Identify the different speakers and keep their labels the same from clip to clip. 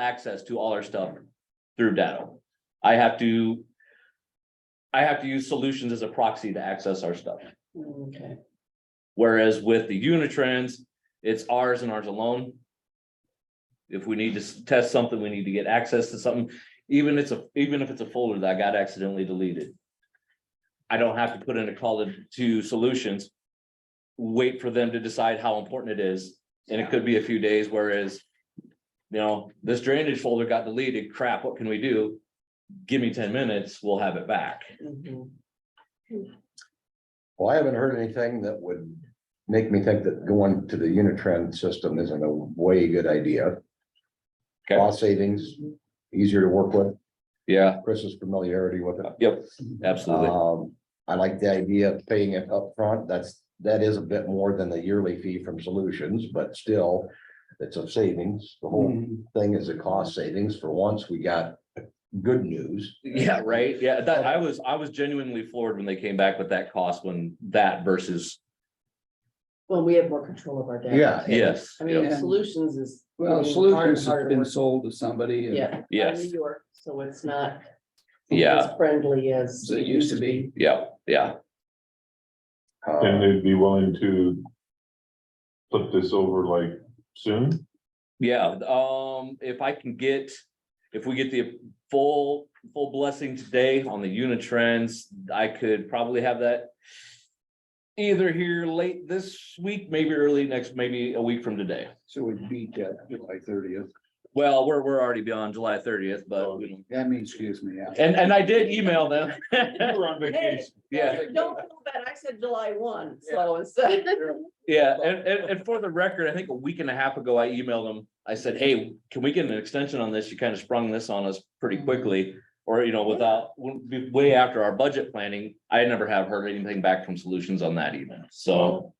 Speaker 1: access to all our stuff through Datto. I have to. I have to use solutions as a proxy to access our stuff.
Speaker 2: Okay,
Speaker 1: Whereas with the Unitrends, it's ours and ours alone. If we need to s- test something, we need to get access to something, even it's a, even if it's a folder that got accidentally deleted. I don't have to put in a call to- to solutions. Wait for them to decide how important it is, and it could be a few days, whereas. You know, this drainage folder got deleted, crap, what can we do? Give me ten minutes, we'll have it back.
Speaker 2: mhm.
Speaker 3: Well, I haven't heard anything that would make me think that going to the Unitrend system isn't a way good idea.
Speaker 1: Okay.
Speaker 3: Cost savings, easier to work with,
Speaker 1: Yeah,
Speaker 3: Chris's familiarity with it.
Speaker 1: yep, absolutely.
Speaker 3: Um, I like the idea of paying it upfront, that's, that is a bit more than the yearly fee from Solutions, but still. It's a savings, the whole
Speaker 4: Mm.
Speaker 1: Hmm.
Speaker 3: thing is a cost savings, for once, we got good news.
Speaker 1: Yeah, right. Yeah, that I was, I was genuinely floored when they came back with that cost when that versus,
Speaker 2: Well, we have more control of our data.
Speaker 3: Yeah.
Speaker 2: too.
Speaker 1: yes.
Speaker 2: I mean,
Speaker 4: Yeah.
Speaker 2: solutions is.
Speaker 4: Well,
Speaker 2: getting harder and
Speaker 4: solutions
Speaker 2: harder
Speaker 4: has
Speaker 2: to
Speaker 4: been
Speaker 2: work-
Speaker 4: sold to somebody. and
Speaker 2: Yeah.
Speaker 1: Yes.
Speaker 2: out of New York, so it's not.
Speaker 1: Yeah.
Speaker 2: As friendly as.
Speaker 4: As it used to be.
Speaker 1: Yeah, yeah,
Speaker 3: Uh,
Speaker 5: And they'd be willing to flip this over like soon?
Speaker 1: yeah. Um, if I can get, if we get the full, full blessing today on the unit trends, I could probably have that either here late this week, maybe early next, maybe a week from today.
Speaker 4: So we beat that July thirtieth.
Speaker 1: Well, we're, we're already beyond July thirtieth,
Speaker 2: Oh.
Speaker 1: but, you know,
Speaker 4: That means, excuse me, yeah.
Speaker 1: and, and I did email them.
Speaker 5: on
Speaker 2: vacation.
Speaker 1: Yeah.
Speaker 2: Don't feel bad, I said July one, so uh, instead.
Speaker 1: Yeah, and, and, and for the record, I think a week and a half ago, I emailed them. I said, hey, can we get an extension on this? You kind of sprung this on us pretty quickly. Or, you know, without, way after our budget planning, I never have heard anything back from solutions on that even, so.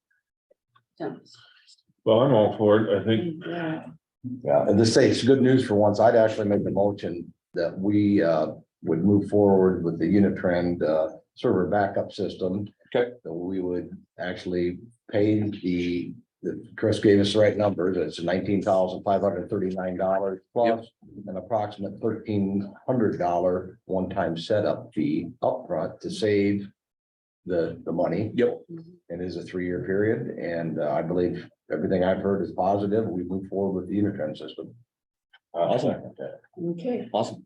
Speaker 5: Well, I'm all for it. I think
Speaker 2: Yeah.
Speaker 3: Yeah, and this says good news for once. I'd actually make the motion that we uh would move forward with the Unitrend uh server backup system.
Speaker 1: Okay.
Speaker 3: That we would actually pay the, the, Chris gave us the right numbers. It's nineteen thousand five hundred thirty-nine dollars plus an approximate thirteen hundred dollar one-time setup fee upfront to save the, the money.
Speaker 1: Yep.
Speaker 3: It is a three-year period, and uh, I believe everything I've heard is positive. We move forward with the Unitrend system. Uh,
Speaker 1: Awesome.
Speaker 2: Okay,
Speaker 1: Awesome.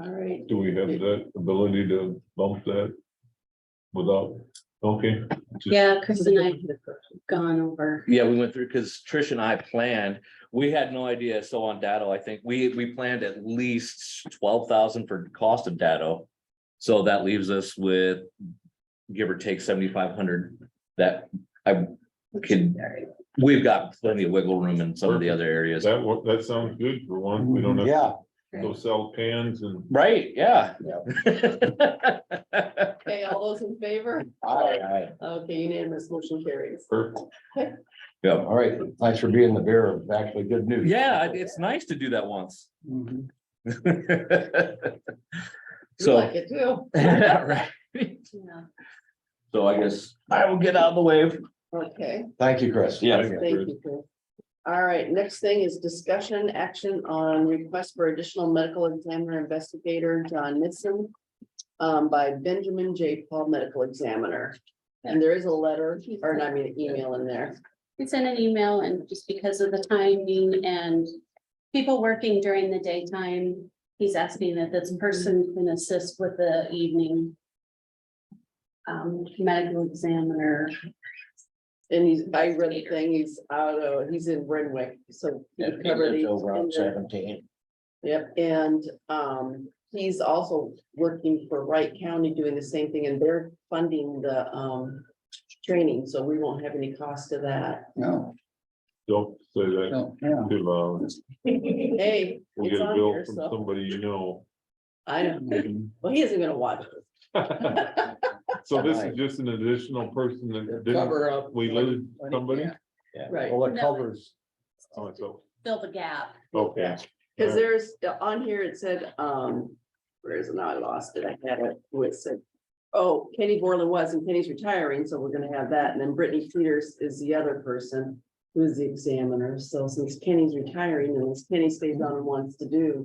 Speaker 2: all right.
Speaker 5: do we have that ability to bump that without, okay,
Speaker 6: Yeah, Chris and I have gone over.
Speaker 1: Yeah, we went through, because Trish and I planned, we had no idea, so on Datto, I think, we, we planned at least twelve thousand for cost of Datto. So that leaves us with, give or take seventy-five hundred, that I can, we've got plenty of wiggle room in some of the other areas.
Speaker 5: that, wo- that sounds good for one. We don't have to
Speaker 3: Yeah,
Speaker 2: Mm-hmm.
Speaker 5: go sell cans and
Speaker 1: Right, yeah.
Speaker 2: Okay, all those in favor?
Speaker 3: I,
Speaker 2: Okay, unanimous motion carries.
Speaker 5: perfect.
Speaker 1: Yeah,
Speaker 3: all right. Thanks for being the bearer of actually good news.
Speaker 1: yeah, it's nice to do that once.
Speaker 4: Mhm.
Speaker 2: You
Speaker 1: So.
Speaker 2: Like it too.
Speaker 1: Right.
Speaker 6: Yeah.
Speaker 1: So I guess I will get out of the way.
Speaker 2: Okay,
Speaker 3: Thank you, Chris.
Speaker 1: Yeah.
Speaker 2: thank you. Chris. All right, next thing is discussion action on request for additional medical examiner investigator John Nixon. Um, by Benjamin J. Paul Medical Examiner. And there is a letter, or I mean, an email in there.
Speaker 6: It's in an email and just because of the timing and people working during the daytime, he's asking that this person can assist with the evening um, medical examiner.
Speaker 2: And he's, I read the thing, he's out of, he's in Renwick, so. he
Speaker 3: Deputy
Speaker 2: covered
Speaker 3: lives
Speaker 2: these
Speaker 3: over on
Speaker 2: in the-
Speaker 3: seventeen.
Speaker 2: Yep, and um, he's also working for Wright County doing the same thing and they're funding the um. Training, so we won't have any cost to that.
Speaker 4: No,
Speaker 5: Don't say that
Speaker 4: no, yeah.
Speaker 5: too loud.
Speaker 2: Hey,
Speaker 5: We'll
Speaker 2: it's
Speaker 5: get a
Speaker 2: on
Speaker 5: bill
Speaker 2: here,
Speaker 5: from
Speaker 2: so
Speaker 5: somebody you know.
Speaker 2: I know, well, he isn't gonna watch. this.
Speaker 5: So this is just an additional person that didn't,
Speaker 4: Cover up.
Speaker 5: we lose somebody?
Speaker 2: Right.
Speaker 3: Well, it
Speaker 6: No.
Speaker 3: covers,
Speaker 5: Oh, it's o-
Speaker 6: Fill the gap.
Speaker 5: Okay.
Speaker 2: Cause there's, on here, it said, um, where is it? Now I lost it. I had it, who it said. Oh, Kenny Borland was and Kenny's retiring, so we're gonna have that. And then Brittany Peters is the other person. Who's the examiner. So since Kenny's retiring and since Kenny stays on and wants to do.